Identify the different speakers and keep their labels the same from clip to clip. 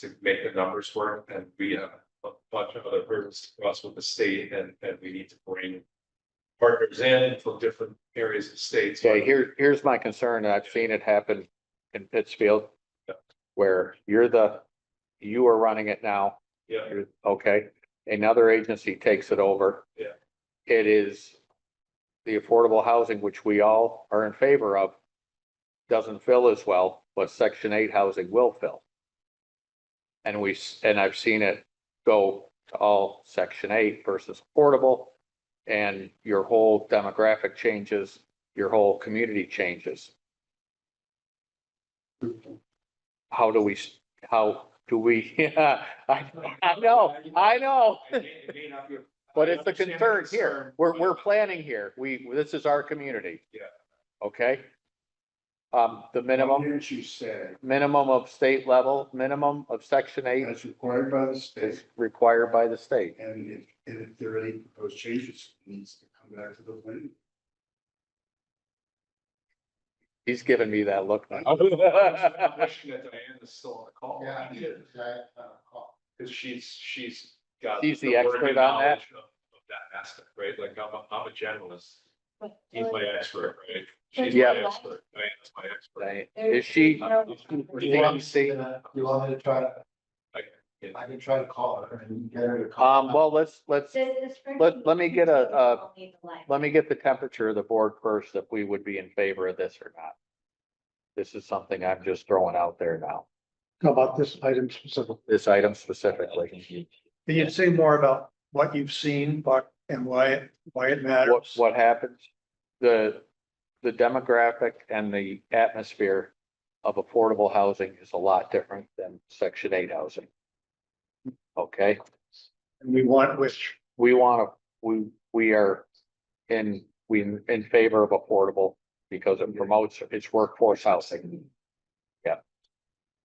Speaker 1: to make the numbers work and we have a bunch of other hurdles to cross with the state and, and we need to bring partners in from different areas of states.
Speaker 2: Yeah, here, here's my concern, and I've seen it happen in Pittsfield.
Speaker 1: Yeah.
Speaker 2: Where you're the, you are running it now,
Speaker 1: Yeah,
Speaker 2: you're, okay, another agency takes it over.
Speaker 1: Yeah.
Speaker 2: It is the affordable housing, which we all are in favor of, doesn't fill as well, but section eight housing will fill. And we, s- and I've seen it go to all section eight versus affordable. And your whole demographic changes, your whole community changes. How do we, s- how do we, yeah, I, I know, I know.
Speaker 1: I may- it may not be-
Speaker 2: But it's
Speaker 1: I
Speaker 2: a
Speaker 1: understand the
Speaker 2: concern
Speaker 1: concern,
Speaker 2: here. We're,
Speaker 1: but-
Speaker 2: we're planning here. We, this is our community.
Speaker 1: Yeah.
Speaker 2: Okay? Um, the minimum,
Speaker 3: Didn't you say
Speaker 2: minimum of state level, minimum of section eight
Speaker 3: that's required by the
Speaker 2: is
Speaker 3: state
Speaker 2: required by the state.
Speaker 3: and if, and if there are any proposed changes, it needs to come back to the planning.
Speaker 2: He's giving me that look. now.
Speaker 1: I'm wishing that Diane is still on the call.
Speaker 3: uh,
Speaker 1: Cause she's, she's got.
Speaker 2: She's the
Speaker 1: working
Speaker 2: expert on that?
Speaker 1: knowledge Of of that aspect, right? Like I'm, a- I'm a generalist.
Speaker 4: But
Speaker 1: He's my expert, right? She's
Speaker 2: Yeah.
Speaker 1: my expert. Diane's my expert.
Speaker 2: Right. Is she,
Speaker 1: You
Speaker 2: want me to see?
Speaker 3: You want me to try,
Speaker 1: Yeah.
Speaker 3: I can try to call her and get her to
Speaker 2: um, well, let's, let's,
Speaker 4: Let,
Speaker 2: let me get a- uh, a- let me get the temperature of the board first, if we would be in favor of this or not. This is something I'm just throwing out there now,
Speaker 5: How about this item specifically?
Speaker 2: this item specifically.
Speaker 5: Can you say more about what you've seen, but, and why, it why it
Speaker 2: what,
Speaker 5: matters?
Speaker 2: what happens, the, the demographic and the atmosphere of affordable housing is a lot different than section eight housing. Okay,
Speaker 5: And we want which,
Speaker 2: we want to, we, we are in, we in favor of affordable because it promotes, it's workforce housing.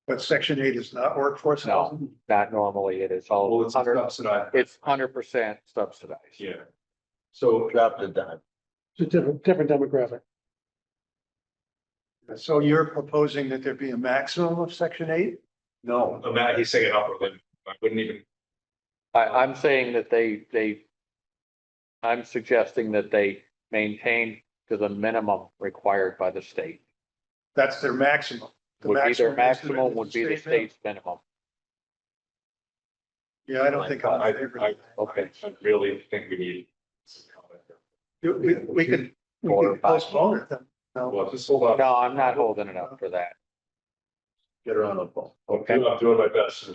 Speaker 5: but section eight is not workforce
Speaker 2: No.
Speaker 5: housing.
Speaker 2: Not normally, it is
Speaker 1: Well,
Speaker 2: all
Speaker 1: it's
Speaker 2: hundred,
Speaker 1: subsidized.
Speaker 2: it's hundred percent subsidized.
Speaker 1: Yeah. So.
Speaker 3: Drop the dime.
Speaker 5: It's a different, different demographic. So you're proposing that there be a maximum of section eight?
Speaker 3: No,
Speaker 1: Uh, Matt, he's saying an upper limit. I wouldn't even,
Speaker 2: I, I'm saying that they, they, I'm suggesting that they maintain to the minimum required by the state.
Speaker 5: That's their maximum. The
Speaker 2: Would be their
Speaker 5: maximum is the-
Speaker 2: maximum, would be the state's minimum.
Speaker 5: Yeah, I don't think I'm
Speaker 1: I,
Speaker 5: in favor
Speaker 1: I,
Speaker 5: of that.
Speaker 2: Okay.
Speaker 1: I really think we need. some comment there.
Speaker 5: You- We, we could, we
Speaker 2: Four or
Speaker 5: could
Speaker 2: five.
Speaker 5: postpone it then. No,
Speaker 1: Well, just hold on.
Speaker 2: No, I'm not holding it up for that.
Speaker 3: get her on the phone.
Speaker 1: I'm doing- I'm doing my best.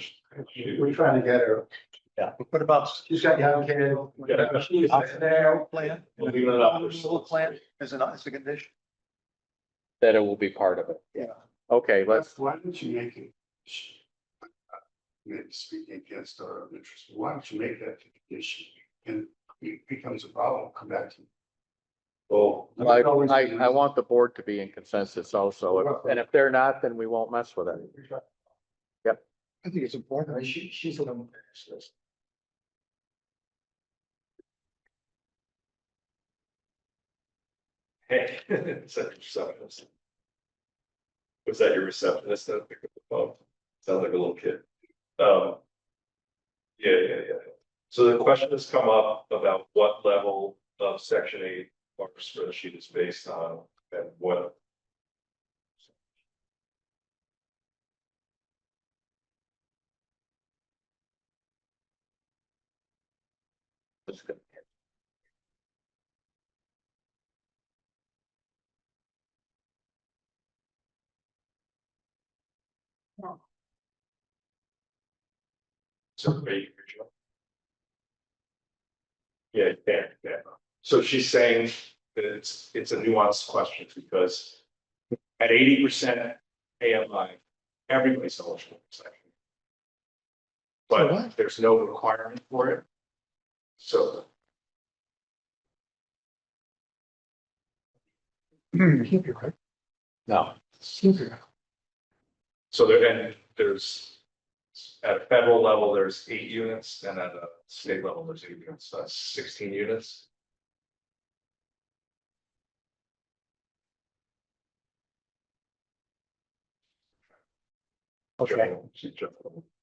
Speaker 3: We're trying to get her.
Speaker 5: what about,
Speaker 3: She's got young kid.
Speaker 1: Yeah.
Speaker 3: She's
Speaker 5: there, plan?
Speaker 1: We're leaving it up.
Speaker 5: Little plan as an, as a condition?
Speaker 2: That it will be part of it.
Speaker 5: Yeah.
Speaker 2: Okay, let's,
Speaker 3: Why don't you make it? Maybe speaking against our own interest, why don't you make that a condition? And it becomes a problem, come back to. you.
Speaker 1: Well,
Speaker 2: I, I, I want the board to be in consensus also, and if they're not, then we won't mess with it.
Speaker 5: I think it's important.
Speaker 3: she, she's a little.
Speaker 1: hey. is that your receptionist? Was that your receptionist that picked up the phone? Sounds like a little kid. Um. Yeah, yeah, yeah. So the question has come up about what level of section eight our spreadsheet is based on and what.
Speaker 2: It's good.
Speaker 1: So are you- Yeah, yeah, yeah. So she's saying that it's, it's a nuanced question because at eighty percent AMI, everybody's eligible for section. But there's no requirement for it. So
Speaker 5: Keep your,
Speaker 2: No,
Speaker 5: keep your.
Speaker 1: So there, and there's, at a federal level, there's eight units, and at a state level, there's eight units, so that's sixteen units.
Speaker 5: Okay.
Speaker 1: General- general.